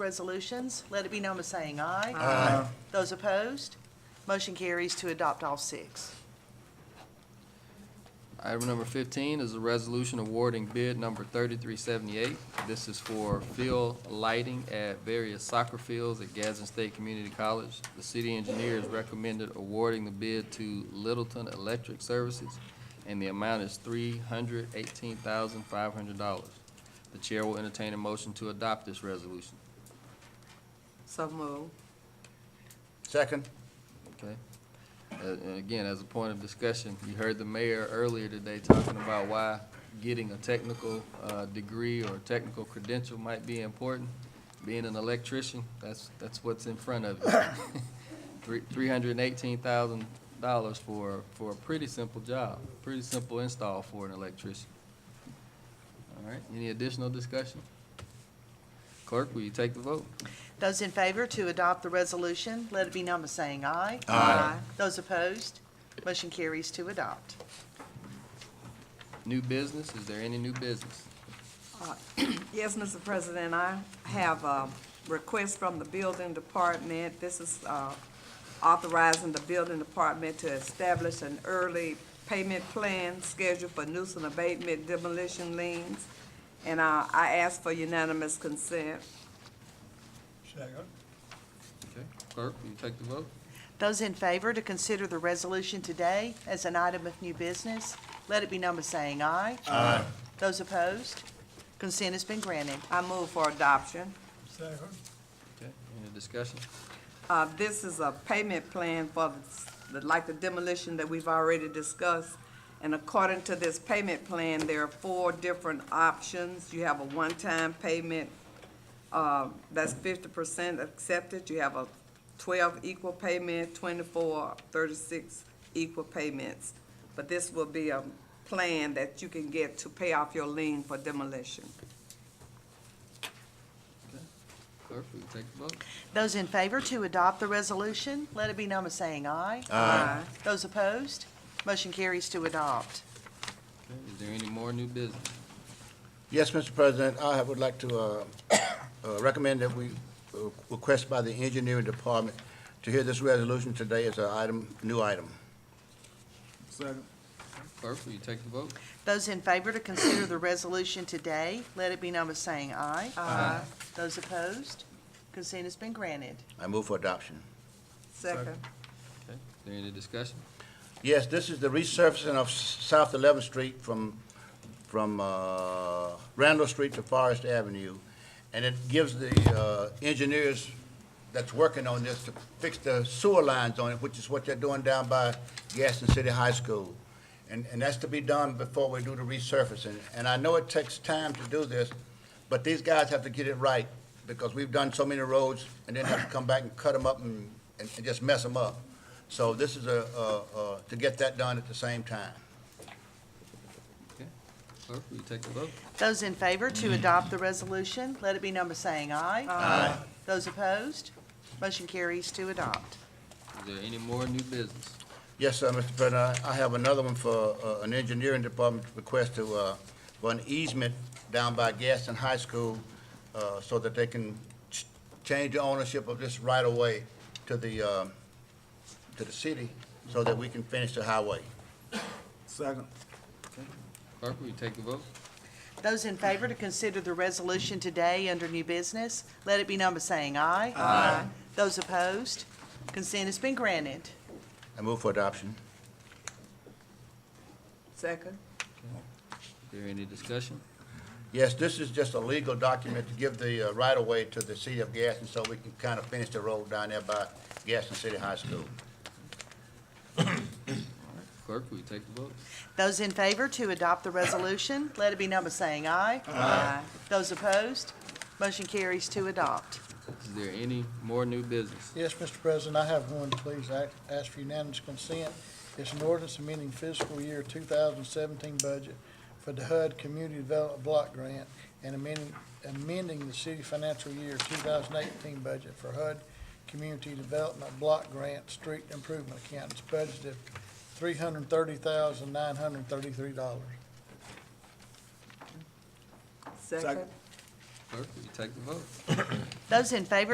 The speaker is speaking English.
resolutions, let it be known by saying aye. Aye. Those opposed, motion carries to adopt all six. Item number fifteen is a resolution awarding bid number thirty-three seventy-eight. This is for field lighting at various soccer fields at Gadsden State Community College. The city engineer has recommended awarding the bid to Littleton Electric Services, and the amount is three hundred eighteen thousand five hundred dollars. The chair will entertain a motion to adopt this resolution. So move. Second. Okay. Uh, And again, as a point of discussion, you heard the mayor earlier today talking about why getting a technical uh, degree or technical credential might be important. Being an electrician, that's, that's what's in front of you. Three three hundred and eighteen thousand dollars for, for a pretty simple job, pretty simple install for an electrician. All right, any additional discussion? Clerk, will you take the vote? Those in favor to adopt the resolution, let it be known by saying aye. Aye. Those opposed, motion carries to adopt. New business, is there any new business? Yes, Mr. President, I have a request from the building department. This is uh, authorizing the building department to establish an early payment plan schedule for nuisance abatement demolition liens. And uh, I ask for unanimous consent. Second. Okay, clerk, will you take the vote? Those in favor to consider the resolution today as an item of new business, let it be known by saying aye. Aye. Those opposed, consent has been granted. I move for adoption. Second. Okay, any discussion? Uh, this is a payment plan for the, like the demolition that we've already discussed. And according to this payment plan, there are four different options. You have a one-time payment, uh, that's fifty percent accepted. You have a twelve equal payment, 24, 36 equal payments. But this will be a plan that you can get to pay off your lien for demolition. Clerk, will you take the vote? Those in favor to adopt the resolution, let it be known by saying aye. Aye. Those opposed, motion carries to adopt. Okay, is there any more new business? Yes, Mr. President, I would like to uh, uh, recommend that we uh, request by the engineering department to hear this resolution today as an item, new item. Second. Clerk, will you take the vote? Those in favor to consider the resolution today, let it be known by saying aye. Aye. Those opposed, consent has been granted. I move for adoption. Second. Okay, is there any discussion? Yes, this is the resurfacing of S- South 11th Street from, from uh, Randall Street to Forest Avenue, and it gives the uh, engineers that's working on this to fix the sewer lines on it, which is what they're doing down by Gaston City High School. And, and that's to be done before we do the resurfacing. And I know it takes time to do this, but these guys have to get it right, because we've done so many roads, and then have to come back and cut them up and, and and just mess them up. So this is a, a- a- to get that done at the same time. Clerk, will you take the vote? Those in favor to adopt the resolution, let it be known by saying aye. Aye. Those opposed, motion carries to adopt. Is there any more new business? Yes, sir, Mr. President, I I have another one for uh, an engineering department request to, uh, for an easement down by Gaston High School uh, so that they can ch- change the ownership of this right-of-way to the, um, to the city so that we can finish the highway. Second. Clerk, will you take the vote? Those in favor to consider the resolution today under new business, let it be known by saying aye. Aye. Those opposed, consent has been granted. I move for adoption. Second. Is there any discussion? Yes, this is just a legal document to give the uh, right-of-way to the city of Gaston so we can kind of finish the road down there by Gaston City High School. Clerk, will you take the vote? Those in favor to adopt the resolution, let it be known by saying aye. Aye. Those opposed, motion carries to adopt. Is there any more new business? Yes, Mr. President, I have one, please, act- ask for unanimous consent. It's an ordinance amending fiscal year 2017 budget for the HUD Community Development Block Grant and amending, amending the city financial year 2018 budget for HUD Community Development Block Grant Street Improvement Account. It's budgeted $330,933. Second. Clerk, will you take the vote? Those in favor